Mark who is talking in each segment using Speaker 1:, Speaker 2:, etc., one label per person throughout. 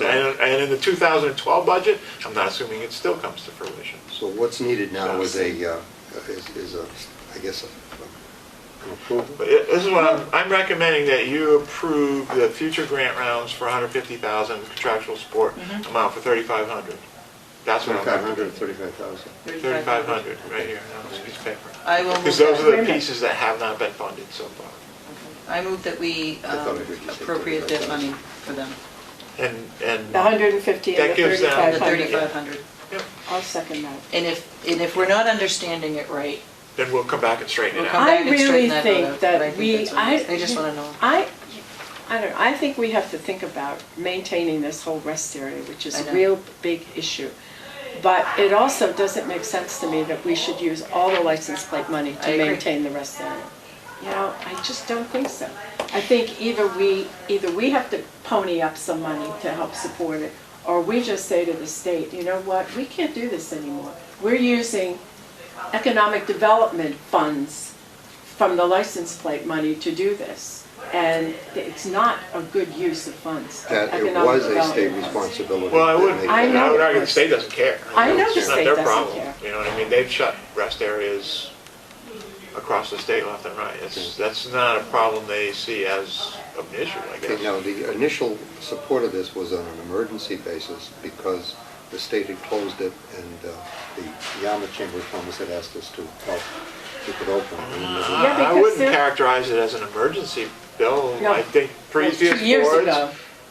Speaker 1: in the 2012 budget, I'm not assuming it still comes to fruition.
Speaker 2: So what's needed now is a, uh, is is a, I guess, a- an approval?
Speaker 1: But it- This is what I'm, I'm recommending that you approve the future grant rounds for 150,000 contractual support
Speaker 3: Mm-hmm.
Speaker 1: amount for 3,500. That's what I'm.
Speaker 2: 2,500 or 35,000?
Speaker 1: 3,500, right here, on this piece of paper.
Speaker 3: I will move
Speaker 1: Because those
Speaker 3: that.
Speaker 1: are the pieces that have not been funded so far.
Speaker 3: I move that we
Speaker 2: I thought
Speaker 3: um,
Speaker 2: I heard you say
Speaker 3: appropriate that
Speaker 2: 35,000.
Speaker 3: money for them,
Speaker 1: And, and.
Speaker 4: The 150 and
Speaker 1: That
Speaker 4: the
Speaker 1: gives them-
Speaker 3: the
Speaker 4: 3,500.
Speaker 3: 3,500.
Speaker 1: Yep.
Speaker 4: I'll second that.
Speaker 3: And if, and if we're not understanding it right,
Speaker 1: Then we'll come back and straighten
Speaker 3: we'll
Speaker 1: it
Speaker 3: come
Speaker 1: out.
Speaker 4: I
Speaker 3: back and straighten
Speaker 4: really
Speaker 3: that
Speaker 4: think
Speaker 3: out.
Speaker 4: that
Speaker 3: but I think
Speaker 4: we-
Speaker 3: that's what it is.
Speaker 4: I-
Speaker 3: I just want to know.
Speaker 4: I, I don't know, I think we have to think about maintaining this whole rest area, which is
Speaker 3: I
Speaker 4: a
Speaker 3: know.
Speaker 4: real big issue. But it also doesn't make sense to me that we should use all the license plate money
Speaker 3: I
Speaker 4: to
Speaker 3: agree.
Speaker 4: maintain the rest area. You know, I just don't think so. I think either we, either we have to pony up some money to help support it, or we just say to the state, you know what, we can't do this anymore. We're using economic development funds from the license plate money to do this. And it's not a good use of funds.
Speaker 2: That it
Speaker 4: economic
Speaker 2: was a state
Speaker 4: development funds.
Speaker 2: responsibility.
Speaker 1: Well, I
Speaker 2: that
Speaker 1: would,
Speaker 2: they-
Speaker 4: I
Speaker 1: I would
Speaker 4: know.
Speaker 1: argue the state doesn't care.
Speaker 4: I know the
Speaker 1: It's not
Speaker 4: state
Speaker 1: their
Speaker 4: doesn't
Speaker 1: problem,
Speaker 4: care.
Speaker 1: You know what I mean? They've shut rest areas across the state left and right.
Speaker 2: Mm.
Speaker 1: It's, that's not a problem they see as an issue, I guess.
Speaker 2: Okay, Now, the initial support of this was on an emergency basis because the state had closed it and uh, the Yarmouth Chamber of Commerce had asked us to help keep it open. And it was-
Speaker 1: Uh,
Speaker 4: Yeah,
Speaker 1: I
Speaker 4: because
Speaker 1: wouldn't
Speaker 4: they're-
Speaker 1: characterize it as an emergency, Bill.
Speaker 4: No.
Speaker 1: I think
Speaker 4: Like two
Speaker 1: previous
Speaker 4: years ago.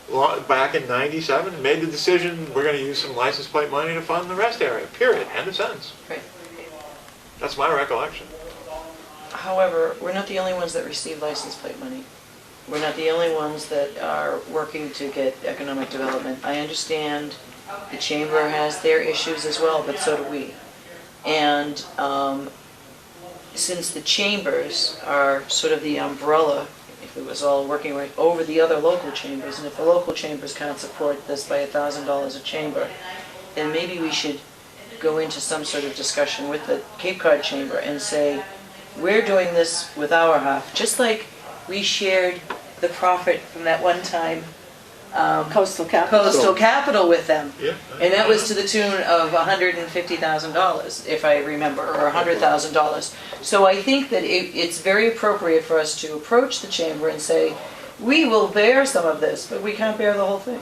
Speaker 1: boards, lo- back in 97, made the decision, we're going to use some license plate money to fund the rest area, period, end of sentence.
Speaker 3: Right.
Speaker 1: That's my recollection.
Speaker 3: However, we're not the only ones that receive license plate money. We're not the only ones that are working to get economic development. I understand the chamber has their issues as well, but so do we. And um, since the chambers are sort of the umbrella, if it was all working right, over the other local chambers, and if the local chambers can't support this by a thousand dollars a chamber, then maybe we should go into some sort of discussion with the Cape Cod Chamber and say, we're doing this with our half, just like we shared the profit from that one time
Speaker 4: Coastal capital.
Speaker 3: coastal capital with them.
Speaker 1: Yeah.
Speaker 3: And that was to the tune of hundred and fifty thousand dollars, if I remember, or hundred thousand dollars. So I think that it, it's very appropriate for us to approach the chamber and say, we will bear some of this, but we can't bear the whole thing.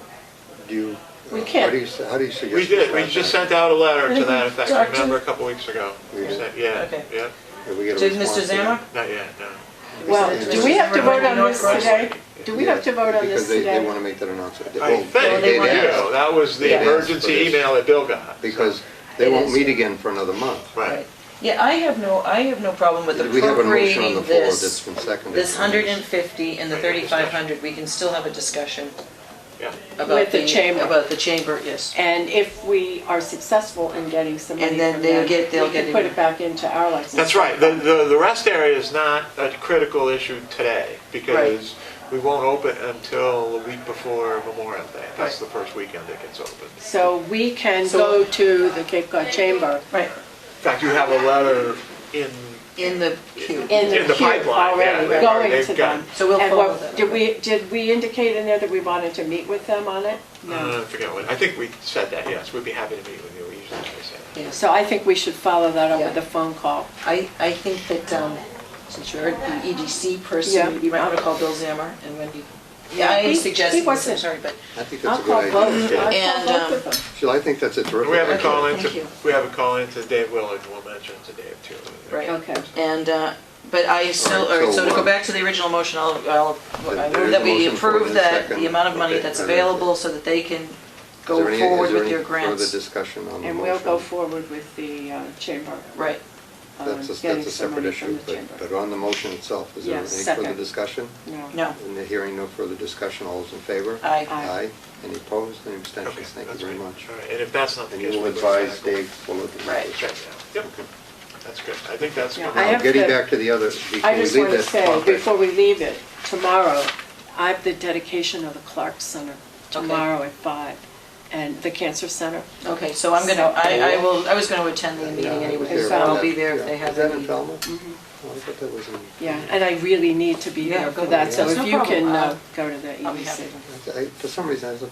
Speaker 2: Do you,
Speaker 4: We
Speaker 2: uh, how
Speaker 4: can't.
Speaker 2: do you, s- how do you suggest?
Speaker 1: We did, we
Speaker 2: write
Speaker 1: just
Speaker 2: that?
Speaker 1: sent out a letter to that effect,
Speaker 3: Doctor-
Speaker 1: remember, a couple weeks ago.
Speaker 2: We did.
Speaker 1: Sent- Yeah,
Speaker 3: Okay.
Speaker 1: yeah,
Speaker 2: Did we get a
Speaker 3: Did Mr.
Speaker 2: response to
Speaker 3: Zammar?
Speaker 2: that?
Speaker 1: not yet, no.
Speaker 4: Well, do we have to vote on this today? Do we have to vote on
Speaker 2: Because
Speaker 4: this
Speaker 2: they, they
Speaker 4: today?
Speaker 2: want to make that announcement. They-
Speaker 1: I
Speaker 2: well,
Speaker 1: think,
Speaker 3: Well, they
Speaker 2: they'd
Speaker 3: want-
Speaker 2: asked
Speaker 1: yeah, that was
Speaker 2: They'd
Speaker 1: the
Speaker 2: asked for
Speaker 1: emergency
Speaker 2: this.
Speaker 1: email that Bill got.
Speaker 2: Because they
Speaker 3: It
Speaker 2: won't
Speaker 3: is.
Speaker 2: meet again for another month.
Speaker 1: Right.
Speaker 3: Yeah, I have no, I have no problem with
Speaker 2: We have a motion on the
Speaker 3: appropriating
Speaker 2: floor that's
Speaker 3: this,
Speaker 2: been seconded.
Speaker 3: this hundred and fifty and the
Speaker 1: Right, discussion.
Speaker 3: thirty-five hundred, we can still have a discussion
Speaker 1: Yeah.
Speaker 3: about
Speaker 4: With the
Speaker 3: the,
Speaker 4: chamber.
Speaker 3: about the chamber, yes.
Speaker 4: And if we are successful in getting some money
Speaker 3: And then
Speaker 4: from
Speaker 3: they'll
Speaker 4: them,
Speaker 3: get- they'll
Speaker 4: we can
Speaker 3: get
Speaker 4: put
Speaker 3: it.
Speaker 4: it back into our license.
Speaker 1: That's right, the, the, the rest area is not a critical issue today, because we won't open until the week before Memorial Day. That's the first weekend it gets opened.
Speaker 4: So we can
Speaker 3: So-
Speaker 4: go to the Cape Cod Chamber
Speaker 3: Right,
Speaker 1: In fact, you have a letter in,
Speaker 3: in the queue.
Speaker 4: in
Speaker 1: In
Speaker 4: the
Speaker 1: the
Speaker 4: queue
Speaker 1: pipeline, yeah,
Speaker 4: already,
Speaker 1: they've-
Speaker 4: going
Speaker 1: they've
Speaker 4: to
Speaker 1: got-
Speaker 4: them.
Speaker 3: So we'll
Speaker 4: And
Speaker 3: follow
Speaker 4: what-
Speaker 3: that.
Speaker 4: Did we, did we indicate in there that we wanted to meet with them on it?
Speaker 1: uh, I forget what, I think we said that, yes, we'd be happy to meet with you, we usually say that.
Speaker 3: Yes.
Speaker 4: So I think we should follow that up
Speaker 3: Yeah.
Speaker 4: with a phone call.
Speaker 3: I, I think that, um, since you're the EDC
Speaker 4: Yeah.
Speaker 3: person, you might want to call Bill Zammer and Wendy. Yeah, I
Speaker 4: He-
Speaker 3: suggested
Speaker 4: he
Speaker 3: this, I'm
Speaker 4: wasn't-
Speaker 3: sorry, but,
Speaker 2: I think
Speaker 4: I'll
Speaker 2: that's a
Speaker 4: call
Speaker 2: good
Speaker 4: both,
Speaker 2: idea.
Speaker 4: I'll
Speaker 3: And,
Speaker 4: call both
Speaker 3: um,
Speaker 4: of them.
Speaker 2: Sheila, I think that's a terrific
Speaker 1: We have a
Speaker 2: idea.
Speaker 1: call in
Speaker 3: Thank
Speaker 1: to,
Speaker 3: you.
Speaker 1: we have a call in to Dave Willard, we'll mention it to Dave too.
Speaker 3: right.
Speaker 4: Okay.
Speaker 3: And, uh, but I
Speaker 2: All
Speaker 3: still,
Speaker 2: right,
Speaker 3: all right, so to
Speaker 2: so, uh,
Speaker 3: go back to the original motion, I'll, I'll,
Speaker 2: There
Speaker 3: I move
Speaker 2: is
Speaker 3: that
Speaker 2: a
Speaker 3: we
Speaker 2: motion for it
Speaker 3: approve
Speaker 2: in
Speaker 3: that,
Speaker 2: second.
Speaker 3: the amount of money
Speaker 2: Okay,
Speaker 3: that's
Speaker 2: I don't-
Speaker 3: available so that they can
Speaker 2: Is
Speaker 3: go
Speaker 2: there any-
Speaker 3: forward
Speaker 2: is there
Speaker 3: with
Speaker 2: any
Speaker 3: their grants.
Speaker 2: Further discussion on the motion?
Speaker 4: And we'll go forward with the uh, chamber.
Speaker 3: Right,
Speaker 4: um,
Speaker 2: That's a,
Speaker 4: getting
Speaker 2: that's a
Speaker 4: some
Speaker 2: separate
Speaker 4: money from
Speaker 2: issue,
Speaker 4: the
Speaker 2: but,
Speaker 4: chamber.
Speaker 2: but on the motion itself, is there any
Speaker 4: Yes,
Speaker 2: further
Speaker 4: second.
Speaker 2: discussion?
Speaker 3: no,
Speaker 2: In the hearing, no further discussion, all those in favor?
Speaker 3: Aye.
Speaker 2: Aye.
Speaker 4: Aye.
Speaker 2: Any opposed, any
Speaker 1: Okay,
Speaker 2: abstentions? Thank you
Speaker 1: that's
Speaker 2: very
Speaker 1: great.
Speaker 2: much.
Speaker 1: All right, and if that's not the
Speaker 2: And
Speaker 1: case.
Speaker 2: you'll
Speaker 1: we'll go
Speaker 2: advise
Speaker 1: back.
Speaker 2: Dave Bullock. about
Speaker 3: Right.
Speaker 2: this.
Speaker 1: Check it out. Yep, that's good, I think that's.
Speaker 4: Yeah,
Speaker 1: good.
Speaker 4: I
Speaker 2: Now,
Speaker 4: have
Speaker 2: getting
Speaker 4: to-
Speaker 2: back to the other, before
Speaker 4: I
Speaker 2: we
Speaker 4: just
Speaker 2: leave
Speaker 4: want to
Speaker 2: this
Speaker 4: say,
Speaker 2: topic.
Speaker 4: before we leave it, tomorrow, I have the dedication of the Clark Center tomorrow at five, and the Cancer Center.
Speaker 3: okay, so I'm gonna, I, I will, I was gonna attend the
Speaker 2: Yeah,
Speaker 3: meeting
Speaker 2: I was
Speaker 3: anyway,
Speaker 2: uh, there
Speaker 3: so
Speaker 2: on
Speaker 3: I'll
Speaker 2: that-
Speaker 3: be there if
Speaker 2: yeah.
Speaker 3: they have
Speaker 2: Is that
Speaker 3: any.
Speaker 2: in Falmouth? Oh, I thought that was in.
Speaker 4: Yeah, and I really need to be
Speaker 3: Mm-hmm. Yeah,
Speaker 4: there for
Speaker 3: go.
Speaker 4: that, so
Speaker 3: That's
Speaker 4: if
Speaker 3: no
Speaker 4: you can
Speaker 3: problem.
Speaker 4: uh,
Speaker 3: I'll-
Speaker 4: go to the EDC.
Speaker 3: I'll be happy to.
Speaker 2: I- For some reason, I was